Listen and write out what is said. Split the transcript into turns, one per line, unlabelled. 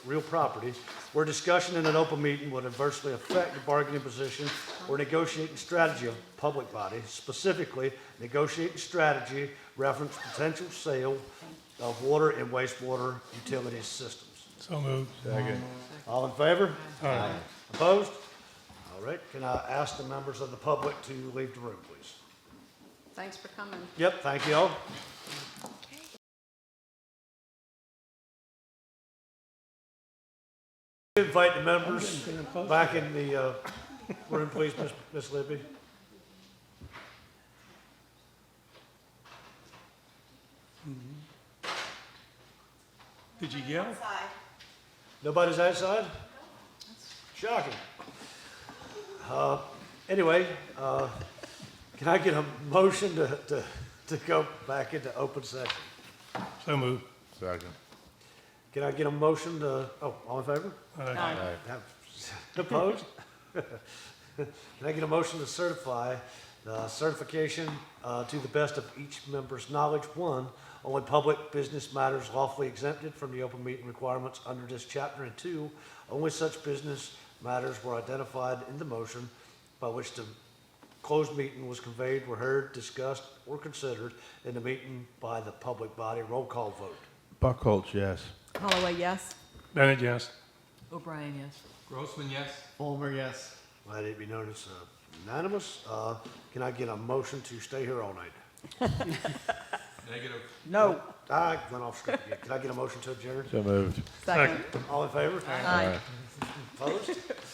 real property, where discussion in an open meeting would adversely affect the bargaining position or negotiating strategy of public body, specifically negotiating strategy reference potential sale of water and wastewater utility systems.
So moved.
All in favor? Aye. Opposed? All right, can I ask the members of the public to leave the room, please?
Thanks for coming.
Yep, thank you all. Invite the members back in the uh, room, please, Miss- Miss Libby.
Did you yell?
Nobody's outside? Shocking. Uh, Anyway, uh, can I get a motion to, to, to go back into open session?
So moved.
Second.
Can I get a motion to, oh, all in favor?
Aye.
Opposed? Can I get a motion to certify the certification uh, to the best of each member's knowledge, one, only public business matters lawfully exempted from the open meeting requirements under this chapter, and two, only such business matters were identified in the motion by which the closed meeting was conveyed, were heard, discussed, or considered in the meeting by the public body. Roll call vote.
Buckholz, yes.
Holloway, yes.
Bennett, yes.
O'Brien, yes.
Grossman, yes.
Let it be known as uh, unanimous. Uh, Can I get a motion to stay here all night?
Negative.
No.
I went off script again. Can I get a motion to adjourn?
So moved.
Second.
All in favor?
Aye.
Opposed?